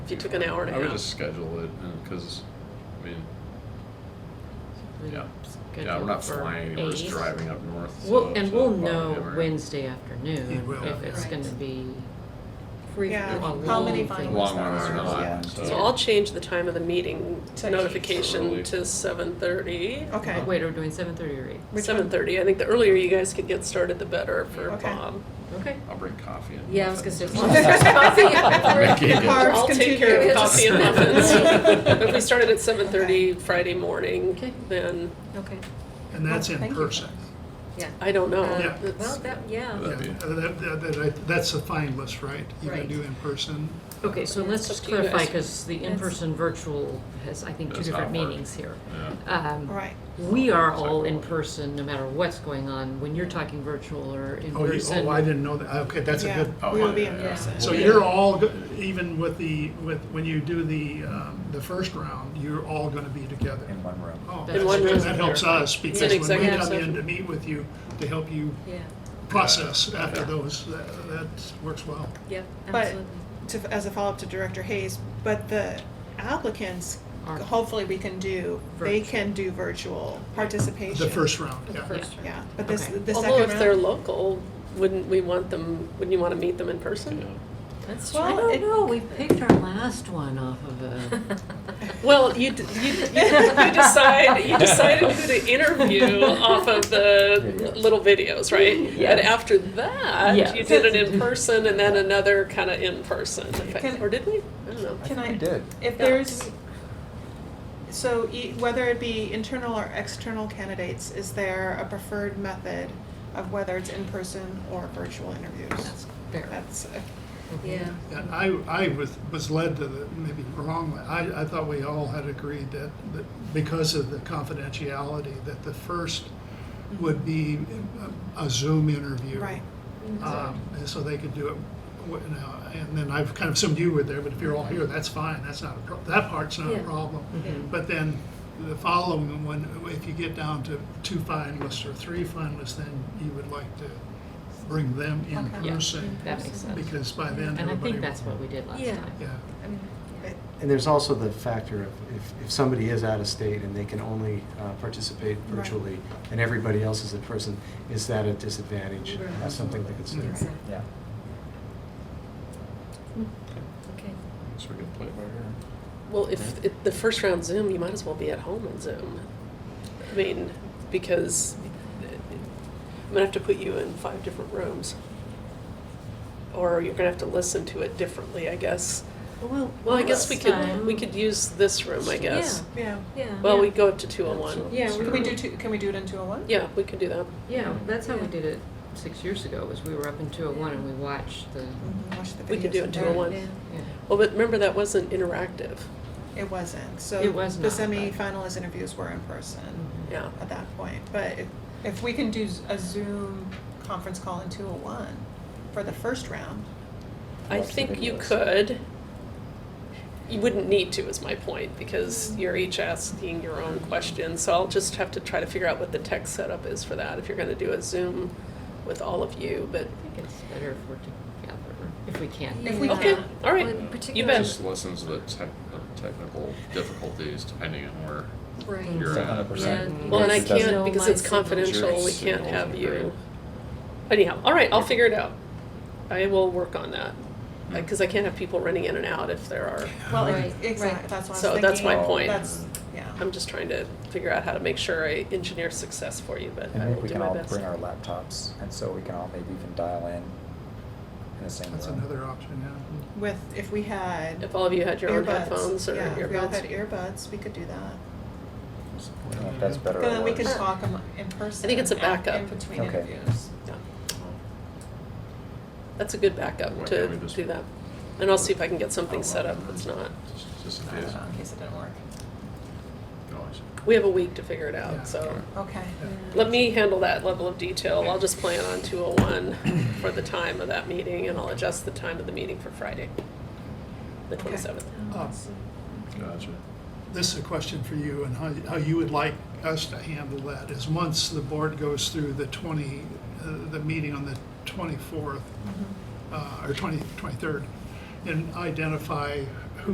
you took an hour and a I half. would just schedule it, because, I mean, yeah, yeah, we're not flying, anywhere, we're just driving up north. so We'll, it's and not we'll far know anywhere. Wednesday You afternoon will. if it's Right. gonna be, Yeah, Well, how long many thing. finalists Long are run or there? not, Yeah. so. So I'll change the time of the meeting To eight. notification Early. to seven thirty. Okay. Oh, Uh-huh. wait, are we doing seven thirty or eight? Oh, Which one? Seven thirty, I think the earlier you guys could get started, the better for Okay. Bob. Okay. I'll bring coffee and. Yeah, I was gonna say. Make it- Carbs I'll take care continue. of coffee and muffins. If we started at seven Okay. thirty Friday morning, Okay. then, Okay, And that's Well, in thank you. person. yeah. I don't know. Uh, Yeah. Well, It's- that, yeah. Yeah, Uh, That'd be- that- that- that- that- That's the finalist, right? You can Right. do in person. Okay, so let's It's up just to you clarify, guys. because the in-person virtual has, I think, two That's not different hard. meanings here. Yeah, Um, Right. We are all in Exactly. person, no matter what's going on, when you're talking virtual or in Oh, you, person. oh, I didn't know that. Okay, that's a Yeah, good. Oh, We'll yeah, be yeah, in yeah. person. So you're all, go- even with the, with, when you do the, um, the first round, you're all gonna be together. in one room. Oh, In that's one good. room. That helps us an because when we executive come in session. to meet with you, to help you Yeah, process after those, that, that works well. yeah, But absolutely. to, as a follow-up to Director Hayes, but the applicants, Are- hopefully we can do, they Virtual. can do virtual participation. The first round, For the yeah. first round. Yeah, but this, Okay. the second round. Although if they're local, wouldn't we want them, wouldn't you want to meet them in person? yeah. That's, Well, I don't it- know, we picked our last one off of a. Well, you, d- you, you decide, you decided who to interview off of the little videos, right? And Yes. after that, you Yes. did it in person and then another kind of in person. if I- Can- Or did we? I don't know. I Can think I- we did. If Yeah. there's, so e- whether it be internal or external candidates, is there a preferred method of whether it's in-person or virtual interviews? That's fair. That's, uh, a- Yeah. And I, I was, was led to the, maybe wrongly, I, I thought we all had agreed that, that because of the confidentiality, that the first would be a Zoom interview. right, Um, and so they could do it, w- you know, and then I've kind of assumed you were there, but if you're all here, that's fine, that's not, a pro- that part's not a Yeah. problem. Mm-hmm. But then the following one, if you get down to two finalists or three finalists, then you would like to bring them in Okay. Yeah. person. That makes sense. Because by then, And I everybody. think that's what we did last Yeah. time. Yeah. And there's also the factor of if, if somebody is out of state and they can only uh, participate Right. virtually and everybody else is in person, is that a disadvantage? Right. That's something to consider. Exactly. Yeah. Okay. So we can play it by ear. Well, if, if the first round Zoom, you might as well be at home on Zoom. I mean, because I'm gonna have to put you in five different rooms. Or you're gonna have to listen to it differently, I guess. Well, Well, I guess we last could, time- we could use this room, I guess. yeah. Yeah. Well, we Yeah. go up to two oh one. Yeah, So- Can we do two, can we do it in two oh one? Yeah, we could do that. Yeah, that's how we Yeah. did it six years ago, was we were up in two oh one and we watched the, Mm-hmm. Watch the We could videos do it and in two oh one. Yeah. yeah. Well, but remember, that wasn't interactive. It wasn't, so. It was The not, but- semifinalist interviews were in person Yeah. at that point, but if, if we can do z- a Zoom conference call in two oh one for the first round, I Watch the think you videos. could. You wouldn't need to, is my point, because you're each asking your own question. So I'll just have to try to figure out what the tech setup is for that, if you're gonna do a Zoom with all of you, but, I think it's better if we're together, if we can. If we Yeah. can. okay, all right. Well, You particularly- bet. Just lessons the tech, the technical difficulties depending on where Right. you're at. 100%. Yeah. Well, and I Yes, it does. can't, because it's No, my signal. confidential, we Signals can't are have you. great. Anyhow, all right, I'll figure it out. I will work on that, because I can't have people running in and out if there are, well, Right, exactly, right. that's what I was So thinking. that's my Mm-hmm. point. That's, yeah. I'm just trying to figure out how to make sure I engineer success for you, but And I I think will we do can my all best. bring our laptops, and so we can all maybe even dial in in the same room. That's another option, yeah. with if we had If all of you had your own earbuds, headphones or yeah, if we all had earbuds. earbuds, we could do that. I don't know if that's better But or worse. then we could talk am- in person. think it's a at- backup. in between Okay. interviews. Yeah. That's a good backup Why to can't we just- do that. And I'll see if I can get something How set up long? that's not, Just- Just in I case. don't know, in case it didn't work. Always. we have a week to figure it Yeah. out, so. Okay. Let me handle that level of detail. I'll just plan on two oh one for the time of that meeting and I'll adjust the time of the meeting for Friday, the Okay. twenty-seventh. Uh, Gotcha. This is a question for you and how, how you would like us to handle that is once the board goes through the 20, uh, the meeting on the Mm-hmm. 24th, uh, or 20, 23rd, and identify